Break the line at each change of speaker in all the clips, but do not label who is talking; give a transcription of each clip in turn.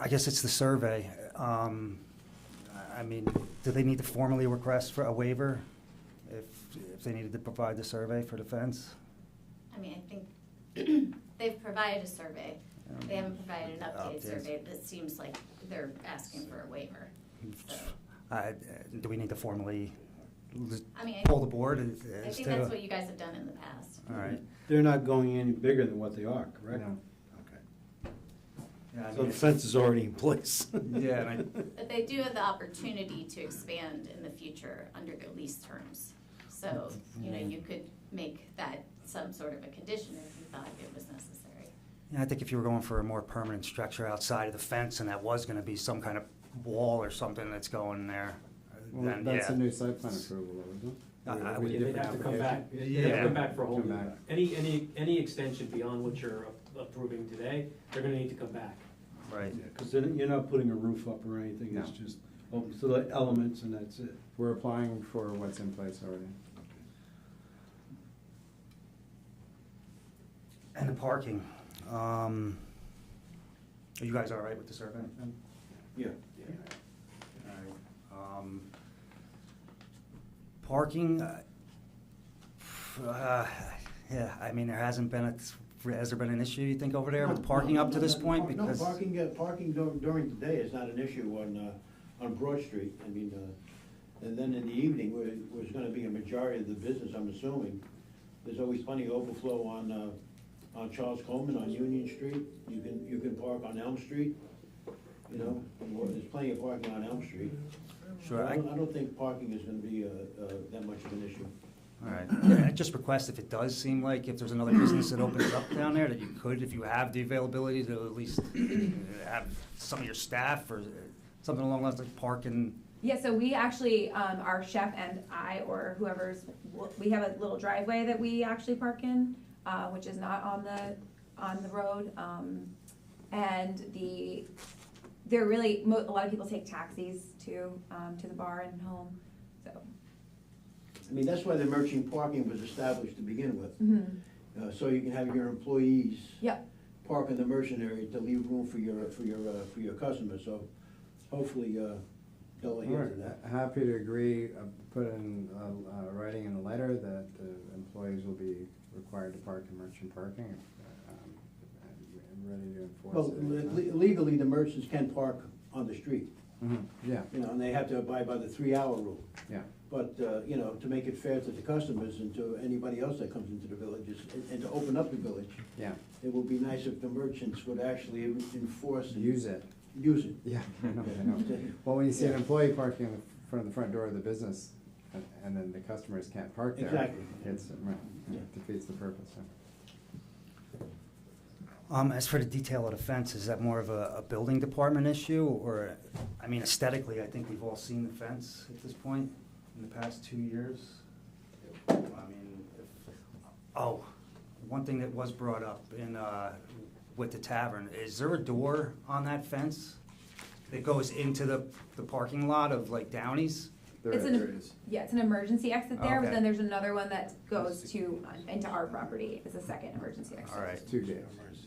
I guess it's the survey. Um, I mean, do they need to formally request for a waiver if, if they needed to provide the survey for the fence?
I mean, I think they've provided a survey. They haven't provided an updated
Updates.
survey, but it seems like they're asking for a waiver. So,
I- Do we need to formally l-
I mean, I-
pull the board
I
as
think that's what
to?
you guys have done in the past.
All right.
They're not going any bigger than what they are, correct?
No.
Okay.
Yeah, I
So
mean,
the fence is already in place.
Yeah, and
But they do have the opportunity to expand in the future under their lease terms. So, you know, you could make that some sort of a condition if you thought it was necessary.
Yeah, I think if you were going for a more permanent structure outside of the fence and that was gonna be some kind of wall or something that's going there,
Well,
then,
that's a
yeah.
new site plan approval, isn't it?
I- I
Or
would-
a
Yeah, they'd
different
have to come back,
application?
they'd have to come back for a whole
Come
new,
back.
any, any, any extension beyond what you're a- approving today, they're gonna need to come back.
Right.
Because you're not putting a roof up or anything, it's
No.
just open to the elements and that's it.
We're applying for what's in place already.
And the parking, um, are you guys all right with the survey?
Yeah.
Alright, um, Parking, uh, uh, yeah, I mean, there hasn't been, a- has there been an issue, you think, over there with
No,
parking
no,
up to
no,
this
no,
point?
no,
Because
No, parking, uh, parking dur- during the day is not an issue on, uh, on Broad Street. I mean, uh, and then in the evening, where it was gonna be a majority of the business, I'm assuming, there's always plenty of overflow on, uh, on Charles Coleman, on Union Street. You can, you can park on Elm Street, you know, or there's plenty of parking on Elm Street.
Sure, I-
I don't, I don't think parking is gonna be, uh, uh, that much of an issue.
All right, Yeah, I just request if it does seem like if there's another business that opens up down there, that you could, if you have the availability to at least uh, have some of your staff or uh, something along those lines, like parking.
Yeah, so we actually, um, our chef and I, or whoever's, we have a little driveway that we actually park in, uh, which is not on the, on the road, um, and the, they're really, mo- a lot of people take taxis to, um, to the bar and home, so.
I mean, that's why the merchant parking was established to begin with. Uh, so you can have your employees.
Yep.
Park in the merchant area to leave room for your, for your, uh, for your customers, so hopefully, uh, they'll adhere to
We're
that.
happy to agree, uh, put in, uh, uh, writing in a letter that the employees will be required to park in merchant parking. um, and we're Ready to enforce
Well,
it.
le- legally, the merchants can park on the street,
Mhm, Yeah,
you know, and they have to abide by the three-hour rule.
yeah.
But, uh, you know, to make it fair to the customers and to anybody else that comes into the villages, and, and to open up the village,
Yeah,
it would be nice if the merchants would actually enforce and
use it.
Use it.
Yeah, I know, I know. Well, when you see an employee parking in the front of the front door of the business, and- and then the customers can't park there.
Exactly.
It's, uh, right,
Yeah.
defeats the purpose, yeah.
Um, as for the detail of the fence, is that more of a, a building department issue or, I mean aesthetically, I think we've all seen the fence at this point in the past two years. I mean, if, oh, one thing that was brought up in, uh, with the tavern, is there a door on that fence that goes into the, the parking lot of like Downey's?
There
It's
is,
an-
there is.
Yeah, it's an emergency exit there, but
Okay.
then there's another one that goes to, uh, into our property, it's a second emergency exit.
All right,
It's two gates.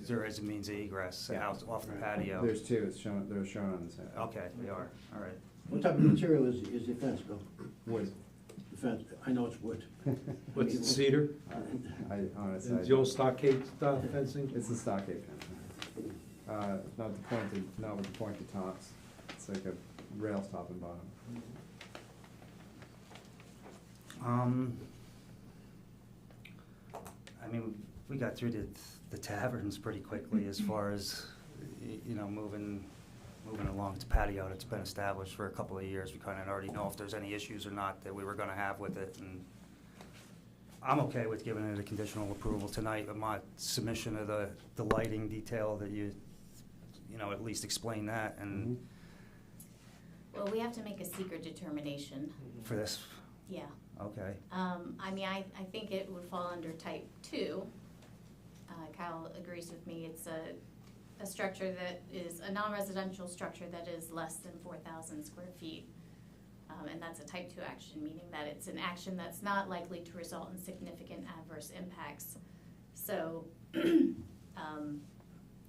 there is a means of egress
Yeah.
out off the patio.
There's two, it's shown, they're shown on the side.
Okay, they are, all right.
What type of material is, is the fence, Bill?
Wood.
The fence, I know it's wood.
What's it, cedar?
I honestly. I-
It's the old stockade style fencing?
It's a stockade fence. Uh, not the pointed, not with the pointed tops. It's like a rail top and bottom.
Um, I mean, we got through the, the taverns pretty quickly as far as, y- you know, moving, moving along. It's a patio that's been established for a couple of years. We kind of already know if there's any issues or not that we were gonna have with it and I'm okay with giving it a conditional approval tonight, but my submission of the, the lighting detail that you, you know, at least explain that and
Well, we have to make a secret determination,
for this,
yeah.
okay.
Um, I mean, I, I think it would fall under type two. Uh, Kyle agrees with me, it's a, a structure that is, a non-residential structure that is less than four thousand square feet. Um, and that's a type two action, meaning that it's an action that's not likely to result in significant adverse impacts. So, um,